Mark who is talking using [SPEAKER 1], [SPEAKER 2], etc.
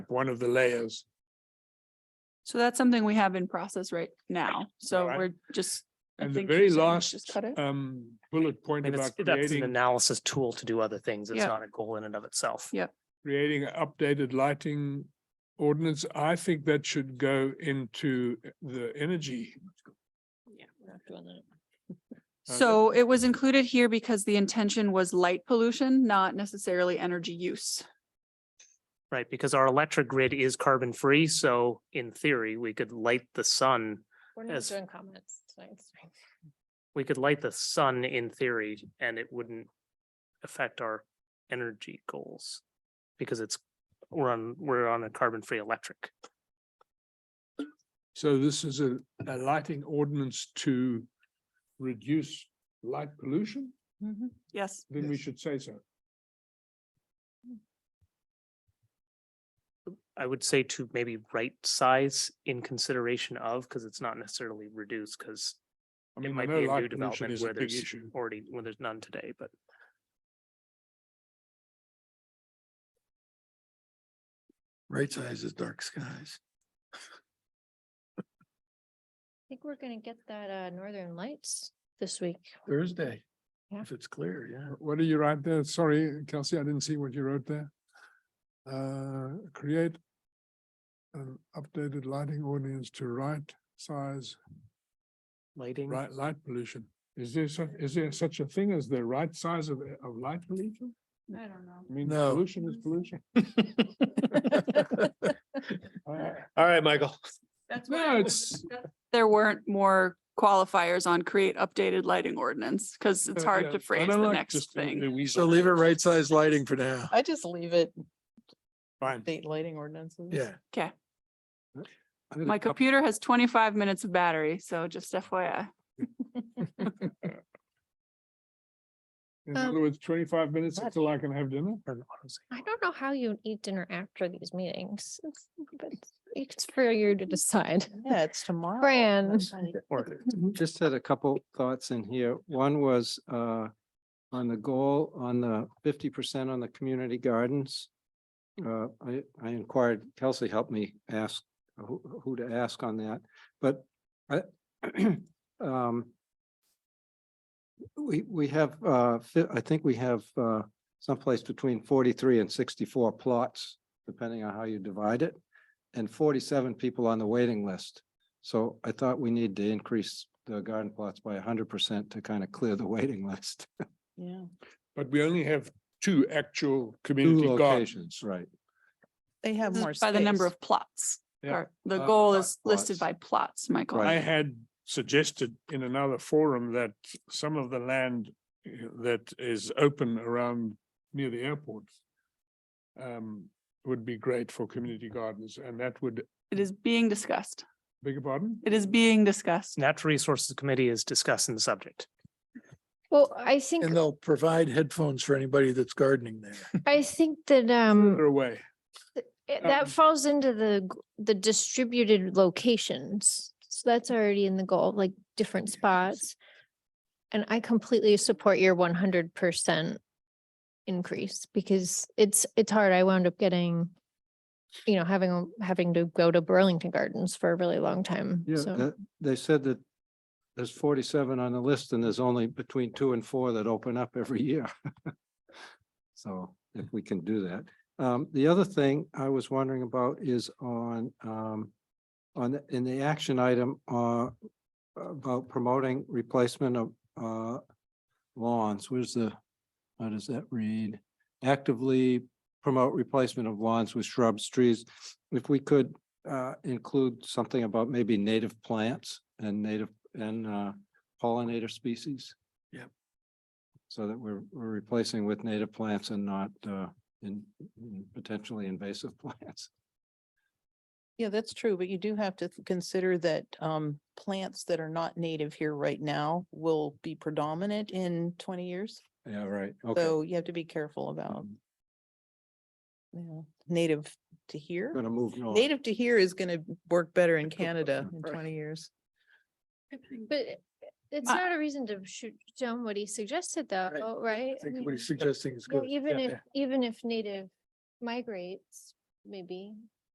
[SPEAKER 1] one of the layers.
[SPEAKER 2] So that's something we have in process right now. So
[SPEAKER 1] Alright.
[SPEAKER 2] we're just. I
[SPEAKER 1] And the
[SPEAKER 2] think you're
[SPEAKER 1] very
[SPEAKER 2] saying we
[SPEAKER 1] last
[SPEAKER 2] just cut it?
[SPEAKER 1] um bullet point
[SPEAKER 3] And it's,
[SPEAKER 1] about
[SPEAKER 3] that's an
[SPEAKER 1] creating,
[SPEAKER 3] analysis tool to do other things. It's
[SPEAKER 2] Yeah.
[SPEAKER 3] not a goal in and of itself.
[SPEAKER 2] Yeah.
[SPEAKER 1] creating an updated lighting ordinance, I think that should go into the energy. Okay.
[SPEAKER 2] So it was included here because the intention was light pollution, not necessarily energy use.
[SPEAKER 3] Right, because our electric grid is carbon free, so in theory, we could light the sun.
[SPEAKER 4] We're
[SPEAKER 3] not
[SPEAKER 4] not
[SPEAKER 3] Yes.
[SPEAKER 4] doing
[SPEAKER 3] doing
[SPEAKER 4] comments tonight.
[SPEAKER 3] We could light the sun in theory and it wouldn't affect our energy goals. Because it's, we're on, we're on a carbon free electric.
[SPEAKER 1] So this is a a lighting ordinance to reduce light pollution,
[SPEAKER 2] Yes.
[SPEAKER 1] then we should say so.
[SPEAKER 3] I would say to maybe right size in consideration of, because it's not necessarily reduced, because
[SPEAKER 1] I
[SPEAKER 3] it
[SPEAKER 1] mean, I
[SPEAKER 3] might
[SPEAKER 1] know
[SPEAKER 3] be a new
[SPEAKER 1] light pollution
[SPEAKER 3] development
[SPEAKER 1] is a
[SPEAKER 3] where
[SPEAKER 1] big
[SPEAKER 3] there's
[SPEAKER 1] issue.
[SPEAKER 3] already, where there's none today, but.
[SPEAKER 5] Right size is dark skies.
[SPEAKER 4] I think we're gonna get that uh Northern Lights this week.
[SPEAKER 5] Thursday,
[SPEAKER 4] Yeah.
[SPEAKER 5] if it's clear, yeah.
[SPEAKER 1] What do you write there? Sorry, Kelsey, I didn't see what you wrote there. Uh, create an updated lighting ordinance to right size,
[SPEAKER 3] Lighting.
[SPEAKER 1] right light pollution. Is there such, is there such a thing as the right size of of light pollution?
[SPEAKER 2] I don't know.
[SPEAKER 1] I mean,
[SPEAKER 5] No.
[SPEAKER 1] pollution is pollution. Uh,
[SPEAKER 5] All right, Michael.
[SPEAKER 2] That's
[SPEAKER 1] why No, uh, I was-
[SPEAKER 2] There weren't more qualifiers on create updated lighting ordinance because it's
[SPEAKER 1] uh, yeah,
[SPEAKER 2] hard
[SPEAKER 1] I
[SPEAKER 2] to phrase
[SPEAKER 1] don't
[SPEAKER 2] the
[SPEAKER 1] like
[SPEAKER 2] next
[SPEAKER 1] just uh, a-
[SPEAKER 2] thing.
[SPEAKER 1] a weasel.
[SPEAKER 5] So leave it right size lighting for now.
[SPEAKER 6] I just leave it
[SPEAKER 1] Fine.
[SPEAKER 6] date lighting ordinances.
[SPEAKER 5] Yeah,
[SPEAKER 1] I did a
[SPEAKER 2] My
[SPEAKER 1] couple-
[SPEAKER 2] computer has twenty-five minutes of battery, so just FYI.
[SPEAKER 1] In other
[SPEAKER 2] um,
[SPEAKER 1] words, twenty-five minutes until I can have dinner.
[SPEAKER 3] or an auto save.
[SPEAKER 4] I don't know how you eat dinner after these meetings. It's- but It's for you to decide.
[SPEAKER 6] Yeah, it's tomorrow.
[SPEAKER 4] Fran.
[SPEAKER 3] Or
[SPEAKER 7] Just had a couple thoughts in here. One was uh on the goal on the fifty percent on the community gardens. Uh, I I inquired, Kelsey helped me ask who who to ask on that, but I um we we have uh, fi- I think we have uh someplace between forty-three and sixty-four plots, depending on how you divide it, and forty-seven people on the waiting list. So I thought we need to increase the garden plots by hundred percent to kind of clear the waiting list.
[SPEAKER 6] Yeah,
[SPEAKER 1] But we only have two actual
[SPEAKER 7] Two
[SPEAKER 1] community gardens.
[SPEAKER 7] locations, right.
[SPEAKER 6] they have
[SPEAKER 2] This
[SPEAKER 6] more.
[SPEAKER 2] is By the number
[SPEAKER 6] space.
[SPEAKER 2] of plots.
[SPEAKER 1] Yeah.
[SPEAKER 2] Or The
[SPEAKER 1] Uh,
[SPEAKER 2] goal
[SPEAKER 1] plot-
[SPEAKER 2] is listed by
[SPEAKER 7] plots.
[SPEAKER 2] plots, Michael.
[SPEAKER 1] I
[SPEAKER 7] Right.
[SPEAKER 1] had suggested in another forum that some of the land uh, that is open around near the airport um, would be great for community gardens, and that would,
[SPEAKER 2] It is being discussed.
[SPEAKER 1] beg your pardon?
[SPEAKER 2] It is being discussed.
[SPEAKER 3] Natural Resources Committee is discussing the subject.
[SPEAKER 4] Well, I think,
[SPEAKER 5] and they'll provide headphones for anybody that's gardening there.
[SPEAKER 4] I think that um.
[SPEAKER 1] Further away.
[SPEAKER 4] It-
[SPEAKER 1] Um,
[SPEAKER 4] That falls into the, g- the distributed locations. So that's already in the goal, like different spots. And I completely support your one hundred percent increase because it's, it's hard. I wound up getting, you know, having, a- having to go to Burlington Gardens for a really long time.
[SPEAKER 7] Yeah,
[SPEAKER 4] So
[SPEAKER 7] that- they said that there's forty-seven on the list and there's only between two and four that open up every year. So if we can do that. Um, the other thing I was wondering about is on, um, on, the- in the action item, uh, about promoting replacement of, uh, lawns. Where's the, how does that read? Actively promote replacement of lawns with shrubs, trees. If we could, uh, include something about maybe native plants and native and, uh, pollinator species.
[SPEAKER 5] Yep.
[SPEAKER 7] So that we're, we're replacing with native plants and not, uh, in in potentially invasive plants.
[SPEAKER 6] Yeah, that's true, but you do have to th- consider that um plants that are not native here right now will be predominant in twenty years.
[SPEAKER 7] Yeah, right. Okay.
[SPEAKER 6] So you have to be careful about,
[SPEAKER 7] I'm Mm-hmm.
[SPEAKER 6] you know, native to here.
[SPEAKER 7] Gonna move north.
[SPEAKER 6] Native to here is gonna work better in Canada in twenty years.
[SPEAKER 4] But it- it's
[SPEAKER 2] I-
[SPEAKER 4] not a reason to shoot down what he suggested though, right?
[SPEAKER 5] I
[SPEAKER 4] I
[SPEAKER 5] think
[SPEAKER 4] mean-
[SPEAKER 5] what he's suggesting is
[SPEAKER 4] No,
[SPEAKER 5] good.
[SPEAKER 4] even
[SPEAKER 5] Yeah.
[SPEAKER 4] if, even if native migrates, maybe